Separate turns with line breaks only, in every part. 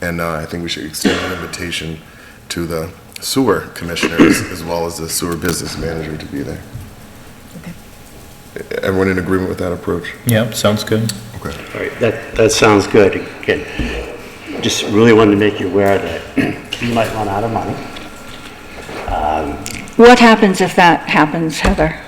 And uh, I think we should extend an invitation to the sewer commissioners as well as the sewer business manager to be there. Everyone in agreement with that approach?
Yep, sounds good.
Okay.
All right, that, that sounds good. Again, just really wanted to make you aware that you might run out of money.
What happens if that happens, Heather?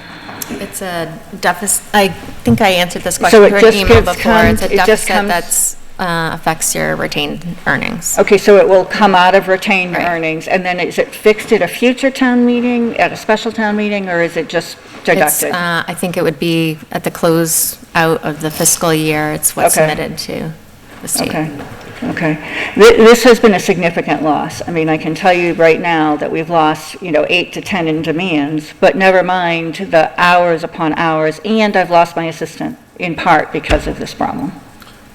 It's a deficit, I think I answered this
So
question
it
through
just
an email
gets
before. It's a
comes- it just
deficit
comes-
that's, uh, affects your retained earnings.
Okay, so it will come out of retained
Right.
earnings, and then is it fixed at a future town meeting, at a special town meeting, or is it just
It's,
deducted?
uh, I think it would be at the close out of the fiscal year. It's what's
Okay.
submitted to the
Okay,
state.
okay. Thi- This has been a significant loss. I mean, I can tell you right now that we've lost, you know, eight to 10 in demands, but never mind the hours upon hours, and I've lost my assistant in part because of this problem.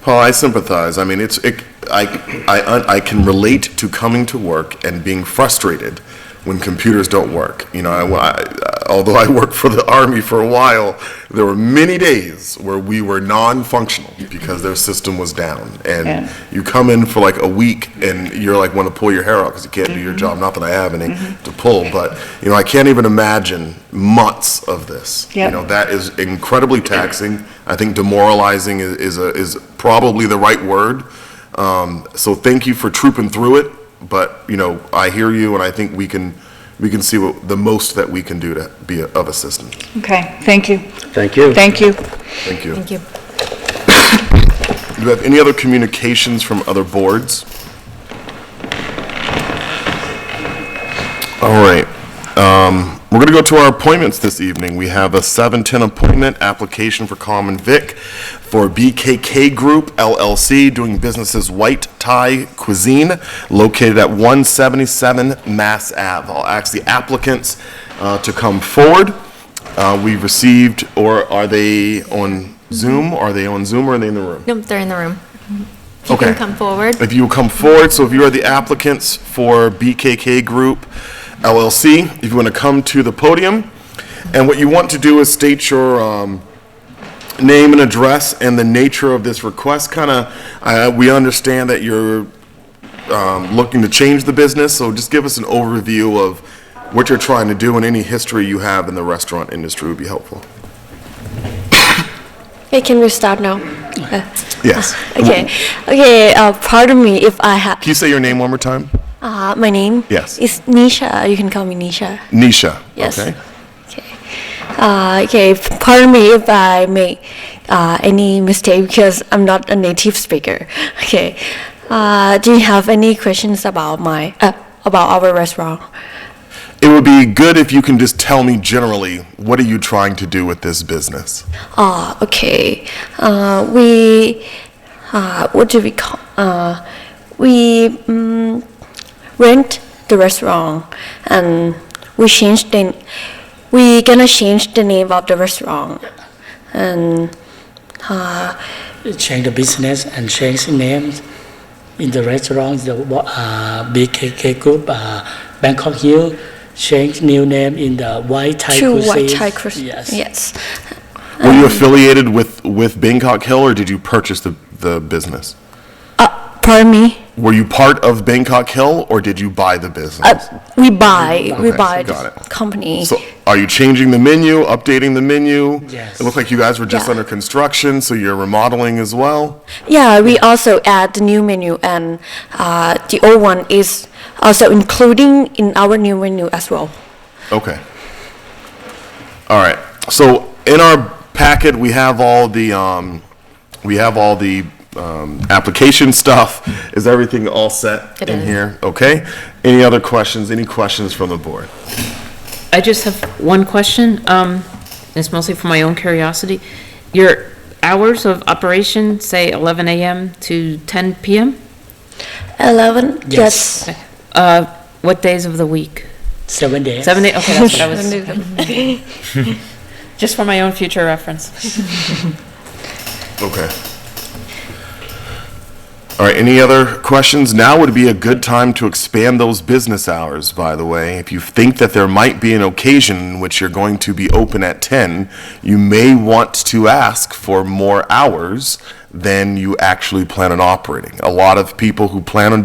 Paul, I sympathize. I mean, it's, it, I, I, I can relate to coming to work and being frustrated when computers don't work. You know, I, I- although I worked for the Army for a while, there were many days where we were non-functional because their system was down.
Yeah.
And you come in for like a week and you're like, want to pull your hair out because you can't do your job. Not that I have any to pull, but, you know, I can't even imagine months of this. You
Yep.
know, that is incredibly taxing. I think demoralizing is, is a, is probably the right word. Um, so thank you for trooping through it, but, you know, I hear you and I think we can, we can see what, the most that we can do to be of assistance.
Okay, thank you,
Thank you.
thank you.
Thank you.
Thank you.
Do you have any other communications from other boards? All right. um, We're going to go to our appointments this evening. We have a 7:10 appointment, application for Common Vic for BKK Group LLC, doing business as White Thai Cuisine, located at 177 Mass Ave. I'll ask the applicants uh, to come forward. Uh, We received, or are they on Zoom? Are they on Zoom or are they in the room?
Nope, they're in the room. If you
Okay.
can come forward.
If you will come forward, so if you are the applicants for BKK Group LLC, if you want to come to the podium, and what you want to do is state your um, name and address and the nature of this request, kind of, we understand that you're um, looking to change the business, so just give us an overview of what you're trying to do and any history you have in the restaurant industry would be helpful.
Hey, can we start now? Uh,
Yes.
Okay, okay. Uh, pardon me if I have.
Can you say your name one more time?
Uh, my name.
Yes.
Is Nisha. Uh, You can call me Nisha.
Nisha.
Yes.
Okay.
Okay. Uh, okay. f- Pardon me if I make uh, any mistake because I'm not a native speaker. Okay. Uh, do you have any questions about my uh, about our restaurant?
It would be good if you can just tell me generally, what are you trying to do with this business?
Ah, okay. Uh, we, uh, what do we call? Uh, we mm rent the restaurant, and we changed the. We gonna change the name of the restaurant, and uh,
change the business and change names in the restaurant, the uh, BKK Group, uh, Bangkok Hill, change new name in the White Thai
to
Cuisine.
White Thai Cuisine.
Yes.
Yes.
Were you affiliated with, with Bangkok Hill or did you purchase the, the business?
Uh, pardon me.
Were you part of Bangkok Hill or did you buy the business?
Uh, we buy. we
Okay,
buy
got
the
it.
company.
So are you changing the menu, updating the menu?
Yes.
It looked like you guys were just
Yeah.
under construction, so you're remodeling as well?
Yeah, we also add the new menu and uh, the old one is also including in our new menu as well.
Okay. All right. So in our packet, we have all the, um, we have all the, um, application stuff. Is everything all set
It
in
is.
here? Okay. Any other questions? Any questions from the board?
I just have one question. Um, it's mostly for my own curiosity. Your hours of operation, say eleven AM to ten PM?
11?
Yes.
Uh, what days of the week?
Seven days.
Seven days, okay, that's what I was,
Yes.
just for my own future reference.
Okay. All right, any other questions? Now would be a good time to expand those business hours, by the way. If you think that there might be an occasion in which you're going to be open at 10, you may want to ask for more hours than you actually plan on operating. A lot of people who plan on